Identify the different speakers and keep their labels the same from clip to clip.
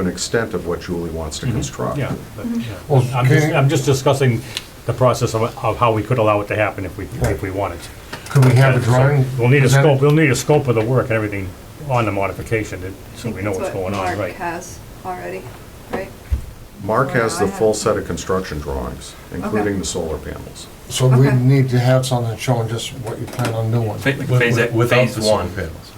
Speaker 1: an extent of what Julie wants to construct.
Speaker 2: Mm-hmm. Yeah, but, yeah.
Speaker 3: Well,
Speaker 2: I'm just,
Speaker 3: can-
Speaker 2: I'm just discussing the process of, of how we could allow it to happen if we, if we wanted to.
Speaker 3: Could we have a drawing?
Speaker 2: We'll need a
Speaker 3: presented?
Speaker 2: scope, we'll need a scope of the work and everything on the modification, to- so we know what's going on,
Speaker 4: Mark
Speaker 2: right?
Speaker 4: has already, right?
Speaker 1: Mark has the
Speaker 4: Well, I
Speaker 1: full
Speaker 4: have-
Speaker 1: set of construction drawings, including the solar panels.
Speaker 3: So we
Speaker 4: Okay.
Speaker 3: need to have something showing just what you plan on doing.
Speaker 5: Fa- like phase A- phase one.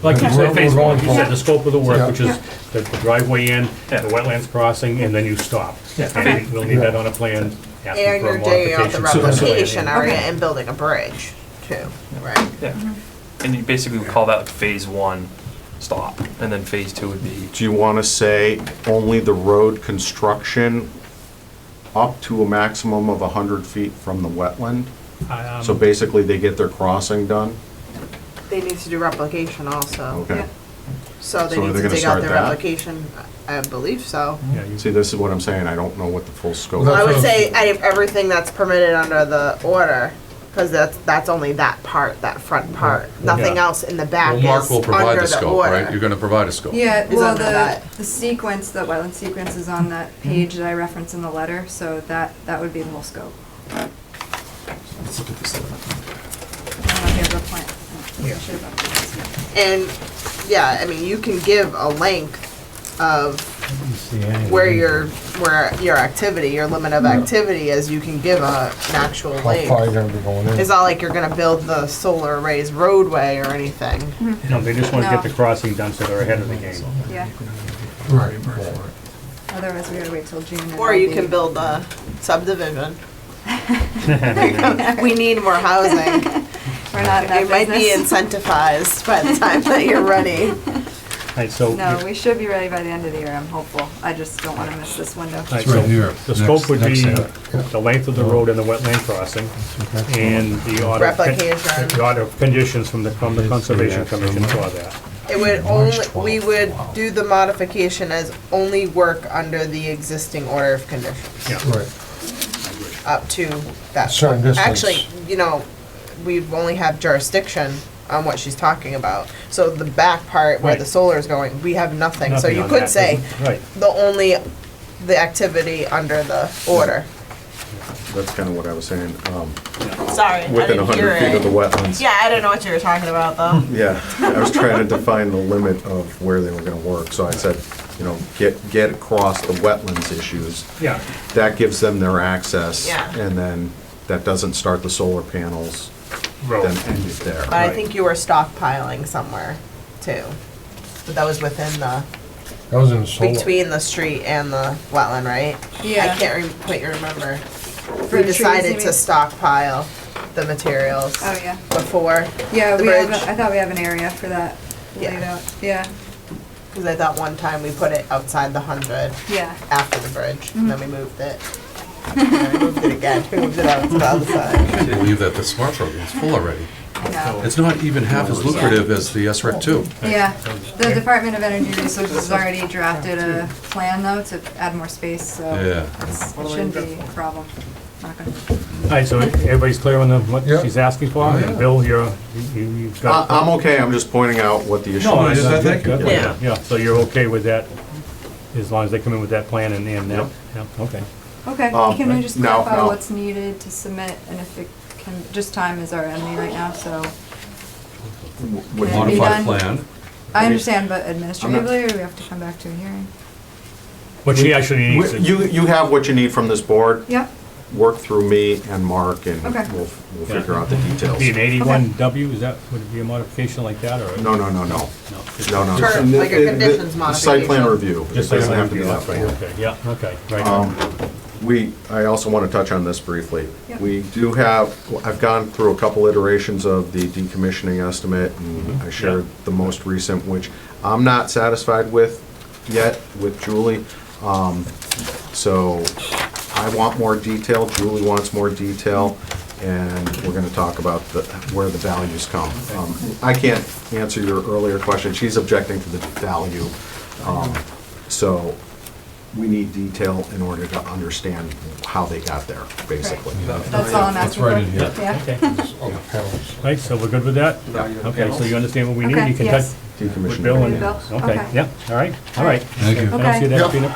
Speaker 2: Like you
Speaker 3: We're-
Speaker 2: said, phase
Speaker 3: we're
Speaker 2: one,
Speaker 3: going
Speaker 2: you said the
Speaker 3: forward.
Speaker 2: scope of the work,
Speaker 3: Yeah.
Speaker 2: which is
Speaker 4: Yeah.
Speaker 2: the the driveway in, the
Speaker 5: Yeah.
Speaker 2: wetlands crossing, and then you stop.
Speaker 5: Yeah.
Speaker 4: Okay.
Speaker 2: And we'll need that on a plan,
Speaker 6: And
Speaker 2: asking for
Speaker 6: your
Speaker 2: a
Speaker 6: day of the
Speaker 2: modification.
Speaker 6: replication area
Speaker 4: Okay.
Speaker 6: and building a bridge too, right?
Speaker 5: Yeah, and you basically would call that like phase one stop, and then phase two would be,
Speaker 1: Do you want to say only the road construction up to a maximum of 100 feet from the wetland?
Speaker 2: Um,
Speaker 1: So basically, they get their crossing done?
Speaker 6: They need to do replication also,
Speaker 1: Okay.
Speaker 6: so they
Speaker 1: So are
Speaker 6: need
Speaker 1: they
Speaker 6: to
Speaker 1: gonna
Speaker 6: dig out
Speaker 1: start
Speaker 6: their
Speaker 1: that?
Speaker 6: replication, I I believe so.
Speaker 2: yeah, you-
Speaker 1: See, this is what I'm saying, I don't know what the full scope.
Speaker 3: Well,
Speaker 6: I
Speaker 3: That's
Speaker 6: would
Speaker 3: what I'm-
Speaker 6: say out of everything that's permitted under the order, because that's, that's only that part, that front part. Nothing
Speaker 2: Yeah.
Speaker 6: else in the back
Speaker 7: Well,
Speaker 6: is
Speaker 7: Mark will provide
Speaker 6: under
Speaker 7: the
Speaker 6: the
Speaker 7: scope, right? You're
Speaker 6: order.
Speaker 7: gonna provide a scope.
Speaker 4: Yeah,
Speaker 6: Is
Speaker 4: well,
Speaker 6: under
Speaker 4: the,
Speaker 6: that.
Speaker 4: the sequence, the wetland sequence is on that
Speaker 6: Mm-hmm.
Speaker 4: page that I referenced in the letter, so that, that would be the whole scope.
Speaker 5: let's look at this.
Speaker 4: I don't know if you have a plan. I should have updated this.
Speaker 6: And, yeah, I mean, you can give a length of where your, where your activity, your limit of activity is, you can give a, an actual
Speaker 3: How far you're
Speaker 6: length.
Speaker 3: gonna be going in.
Speaker 6: It's not like you're gonna build the solar arrays roadway or anything.
Speaker 4: Mm-hmm.
Speaker 2: No, they just wanna get
Speaker 4: No.
Speaker 2: the crossing done so they're ahead of the game.
Speaker 4: Yeah,
Speaker 3: Right, right.
Speaker 4: otherwise we gotta wait till June. and
Speaker 6: Or
Speaker 4: it'll
Speaker 6: you
Speaker 4: be-
Speaker 6: can build a subdivision. We need more housing.
Speaker 4: We're not in that
Speaker 6: You might be
Speaker 4: business.
Speaker 6: incentivized by the time that you're ready.
Speaker 2: Alright, so.
Speaker 4: No, we should be ready by the end of the year, I'm hopeful. I just don't wanna miss this window.
Speaker 2: Alright,
Speaker 8: right
Speaker 2: so
Speaker 8: here,
Speaker 2: The
Speaker 8: next-
Speaker 2: scope would be
Speaker 8: next
Speaker 2: the length of the road and the wetland crossing, and the order. of con-
Speaker 6: Replication.
Speaker 2: The order of conditions from the, from the Conservation Commission for that.
Speaker 6: It would only, we would do the modification as only work under the existing order of conditions,
Speaker 2: Yeah,
Speaker 3: Right.
Speaker 6: up to that.
Speaker 3: Certain
Speaker 6: point.
Speaker 3: distance.
Speaker 6: Actually, you know, we only have jurisdiction on what she's talking about. So the back part where the
Speaker 2: Right.
Speaker 6: solar is going, we have nothing. So
Speaker 2: Nothing
Speaker 6: you
Speaker 2: on
Speaker 6: could
Speaker 2: that,
Speaker 6: say
Speaker 2: Right,
Speaker 6: the only, the activity under the order.
Speaker 1: That's kind of what I was saying, um,
Speaker 6: Sorry,
Speaker 1: within 100 feet of the wetlands.
Speaker 6: Yeah, I didn't know what you were talking about though.
Speaker 2: Hmm.
Speaker 1: Yeah, I was trying to define the limit of where they were going to work, so I said, you know, get, get across the wetlands issues.
Speaker 2: yeah,
Speaker 1: That gives them their access.
Speaker 6: Yeah.
Speaker 1: And then that doesn't start the solar panels, then
Speaker 2: road.
Speaker 1: end it there.
Speaker 6: But I think you were stockpiling somewhere too. But that was within the,
Speaker 3: That was in the solar.
Speaker 6: between the street and the wetland, right?
Speaker 4: Yeah.
Speaker 6: I can't re- quite remember.
Speaker 4: For
Speaker 6: We
Speaker 4: trees, you
Speaker 6: decided
Speaker 4: mean?
Speaker 6: to stockpile the materials
Speaker 4: Oh, yeah.
Speaker 6: before,
Speaker 4: Yeah,
Speaker 6: The
Speaker 4: we have,
Speaker 6: bridge.
Speaker 4: a- I thought we have an area for that
Speaker 6: Yeah.
Speaker 4: laid out. Yeah,
Speaker 6: because I thought one time we put it outside the hundred
Speaker 4: yeah.
Speaker 6: after the bridge, and then
Speaker 4: Mm.
Speaker 6: we moved it. And then we moved it again, we moved it out to the other side.
Speaker 7: I believe that the smart program's full already.
Speaker 4: No.
Speaker 7: It's not even half as lucrative as the SREC two.
Speaker 4: Yeah, the Department of Energy Resources has already drafted a plan though to add more space, so
Speaker 7: Yeah.
Speaker 4: it's- it shouldn't be a problem. Not gonna-
Speaker 2: Alright, so everybody's clear on the, what
Speaker 3: Yeah.
Speaker 2: she's asking for, and Bill, you're, you, you've
Speaker 1: I-
Speaker 2: got.
Speaker 1: I'm okay, I'm just pointing out what the issue
Speaker 2: No, I
Speaker 1: is.
Speaker 2: I think,
Speaker 6: Yeah.
Speaker 2: yeah, yeah, so you're okay with that, as long as they come in with that plan and, and that,
Speaker 1: Yep.
Speaker 2: yeah, okay.
Speaker 4: Okay,
Speaker 1: Um,
Speaker 4: can we just
Speaker 1: no,
Speaker 4: clarify
Speaker 1: no.
Speaker 4: what's needed to submit and if it can, just time is our enemy right now, so
Speaker 1: Would
Speaker 4: Can it be done?
Speaker 7: Modified plan.
Speaker 4: I understand, but administratively, or we have to come back to a hearing?
Speaker 2: What she actually needs, is-
Speaker 1: You, you have what you need from this board,
Speaker 4: Yep,
Speaker 1: work through me and Mark, and
Speaker 4: Okay.
Speaker 1: we'll, we'll
Speaker 2: Yeah.
Speaker 1: figure out the
Speaker 2: be an
Speaker 1: details.
Speaker 2: eighty-one W, is that, would it be a modification like that, or?
Speaker 1: No, no, no, no,
Speaker 2: No.
Speaker 1: no, no.
Speaker 6: Sure, like your
Speaker 1: The- the-
Speaker 6: conditions
Speaker 1: the Site plan
Speaker 6: modification.
Speaker 1: review.
Speaker 2: Just
Speaker 1: It
Speaker 2: like
Speaker 1: doesn't
Speaker 2: that,
Speaker 1: have to be that plan.
Speaker 2: okay, yeah, okay, right.
Speaker 1: Um, We, I also want to touch on this briefly.
Speaker 4: Yep.
Speaker 1: We do have, I've gone through a couple iterations of the decommissioning estimate, and I shared the most recent, which I'm not satisfied with yet with Julie. Um, So I want more detail, Julie wants more detail, and we're going to talk about the, where the values come. Um, I can't answer your earlier question, she's objecting to the value. Um, So we need detail in order to understand how they got there, basically.
Speaker 4: that's all I'm
Speaker 7: That's
Speaker 4: asking for.
Speaker 7: right in here.
Speaker 4: Yeah,
Speaker 2: Okay,
Speaker 3: On the Oh, panels.
Speaker 2: right, so we're good with that? Okay, so you understand what we need?
Speaker 4: Okay,
Speaker 2: You can
Speaker 4: yes.
Speaker 2: touch
Speaker 1: Decommissioning.
Speaker 2: with Bill and,
Speaker 4: Bill,
Speaker 2: okay,
Speaker 4: okay.
Speaker 2: yeah, all right, all right.
Speaker 4: Thank you.
Speaker 2: I don't see that
Speaker 4: Okay.
Speaker 2: being a